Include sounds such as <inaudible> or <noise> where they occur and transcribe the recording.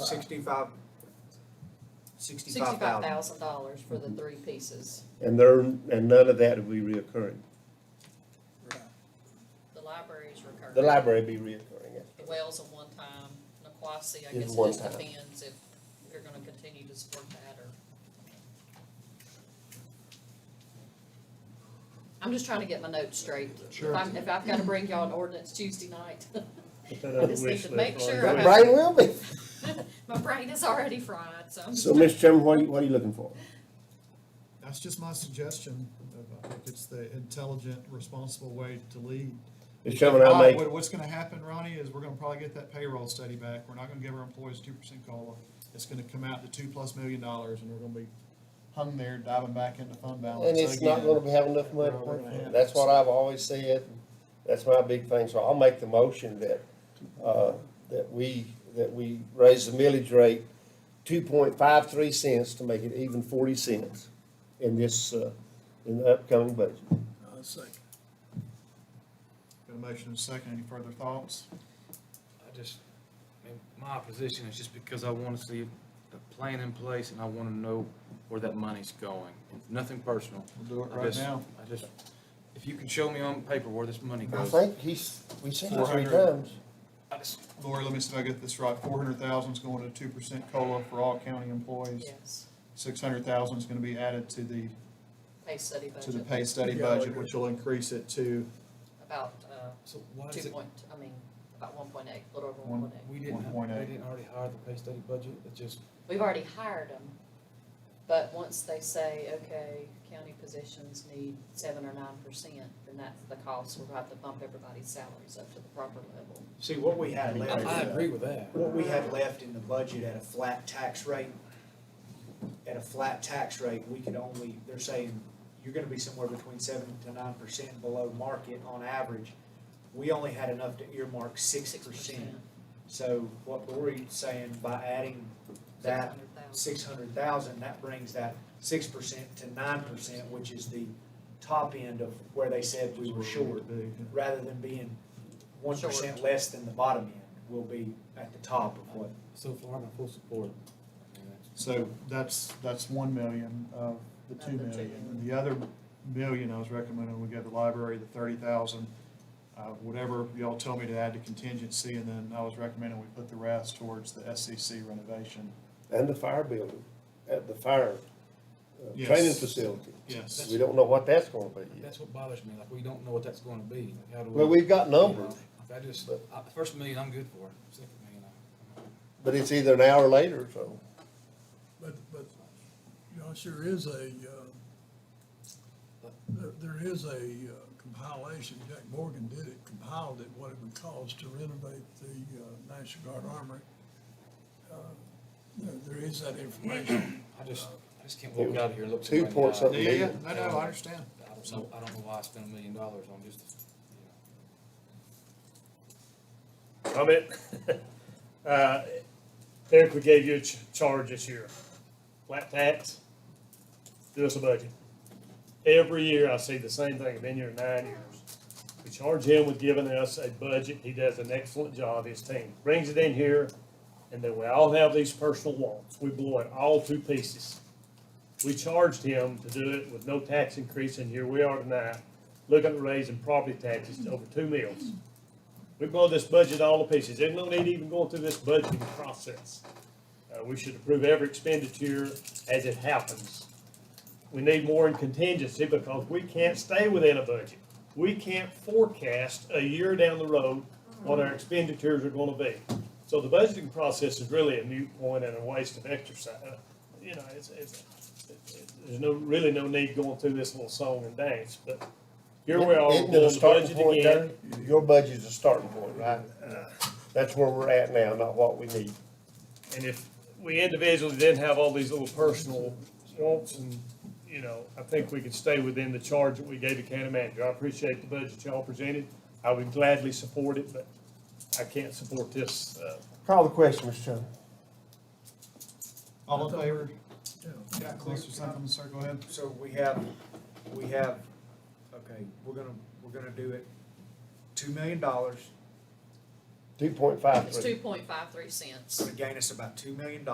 sixty-five, sixty-five Sixty-five thousand. thousand dollars for Mm-hmm. the three pieces. And there, and none of that will be reoccurring. The library's recurring. The library be reoccurring, yes. The well's a one-time, Naquasi, I Is guess it one just time. depends if you're gonna continue to support that or. I'm just trying to get my notes straight. If I'm, if I've gotta bring y'all an ordinance Tuesday night, <laughs> Put that I on the just need wish to list make while sure you're I doing have- it. Brian will be. my brain is already fried, so. I'm So, just- Mr. Chairman, what are you, what are you looking for? That's just my suggestion. I think It's the intelligent, responsible way to lead. Mr. Chairman, I'll make, What- What's gonna happen, Ronnie, is we're gonna probably get that payroll study back. We're not gonna give our employees two percent COLA. It's gonna come out to two plus million dollars and we're gonna be hung there diving back into fund balance and it's not again. gonna be having enough money. We're gonna have- That's what I've always said. That's my big thing. So I'll make the motion that, uh, that we, that we raise the millage rate two point five three cents to make it even forty cents in this, uh, in the upcoming budget. I'll second. Got a motion and a second. Any further thoughts? I just, I mean, my opposition is just because I want to see a plan in place and I want to know where that money's going. Nothing personal. We'll do it I right just- now. I just, if you can show me on paper where this money I goes. think he's, we said it three 400. times. I just- Lori, let me see if I get this right. Four hundred thousand's going to two percent COLA for all county employees. Yes, Six hundred thousand's gonna be added to the, pay study to the budget, pay study Yeah, I budget, agree. which will increase it to about, uh, So why is two it, point, I mean, about one point eight, a little over One- one point eight. we didn't, One point we eight. didn't already hire the pay study budget? It just, We've already hired them, but once they say, okay, county positions need seven or nine percent, then that's the cost, we'll have to bump everybody's salaries up to the proper level. See, what we had I, I left, agree with that. what we had left in the budget at a flat tax rate, at a flat tax rate, we could only, they're saying, you're gonna be somewhere between seven to nine percent below market on average. We only had enough to earmark six percent. So what Lori's saying, by adding that 600,000. six hundred thousand, that brings that six percent to nine percent, which is the top end of where they said we were short. Rather than being one percent Short. less than the bottom end, we'll be at the top of what, So far, I'm in full support. So that's, that's one million of the two Of the two million. And The other million I was recommending, we go to library, the thirty thousand, uh, whatever y'all tell me to add to contingency, and then I was recommending we put the rest towards the SCC renovation. And the fire building, at the fire, uh, Yes. training facility. Yes. We don't know what that's gonna be yet. That's what bothers me. Like, we don't know what that's going to be. Like, how do we? Well, we've got you know, numbers, I just, I- the first million, I'm good for. Second million, I- but it's either an hour later, so. But, but, you know, sure is a, uh, there, there is a uh, compilation, Jack Morgan did it, compiled it, what it would cost to renovate the uh, National Guard Armory. Uh, you know, There is that information. I just, I just can't walk out of here and look. Two somebody point in the eye. something. Yeah, yeah, I know, I understand. I don't know, I don't know why I spent a million dollars on just, you know. Comment? <laughs> Uh, Eric, we gave you a ch- charge this year, flat tax, do us a budget. Every year I see the same thing, I've been here nine years. We charge him with giving us a budget, he does an excellent job, his team brings it in here, and then we all have these personal wants, we blow it all to pieces. We charged him to do it with no tax increase, and here we are tonight, looking at raising property taxes to over two mils. We blow this budget all to pieces. There's no need even going through this budgeting process. Uh, we should approve every expenditure as it happens. We need more in contingency because we can't stay within a budget. We can't forecast a year down the road what our expenditures are gonna be. So the budgeting process is really a moot point and a waste of exercise. Uh, You know, it's, it's, it's- there's no, really no need going through this little song and dance, but here we are, we're Isn't it a doing the starting budget point, again. Terry? Your budget's a starting point, right? That's where we're at now, not what we need. And if we individually didn't have all these little personal wants and, you know, I think we could stay within the charge that we gave the county manager. I appreciate the budget y'all presented. I would gladly support it, but I can't support this, uh, Call the question, Mr. Chairman. All in favor? Yeah. Got close or something, sir, go ahead. so we have, we have, okay, we're gonna, we're gonna do it, two million dollars, two point five three. It's two point five three cents. It's gonna gain us about two million dollars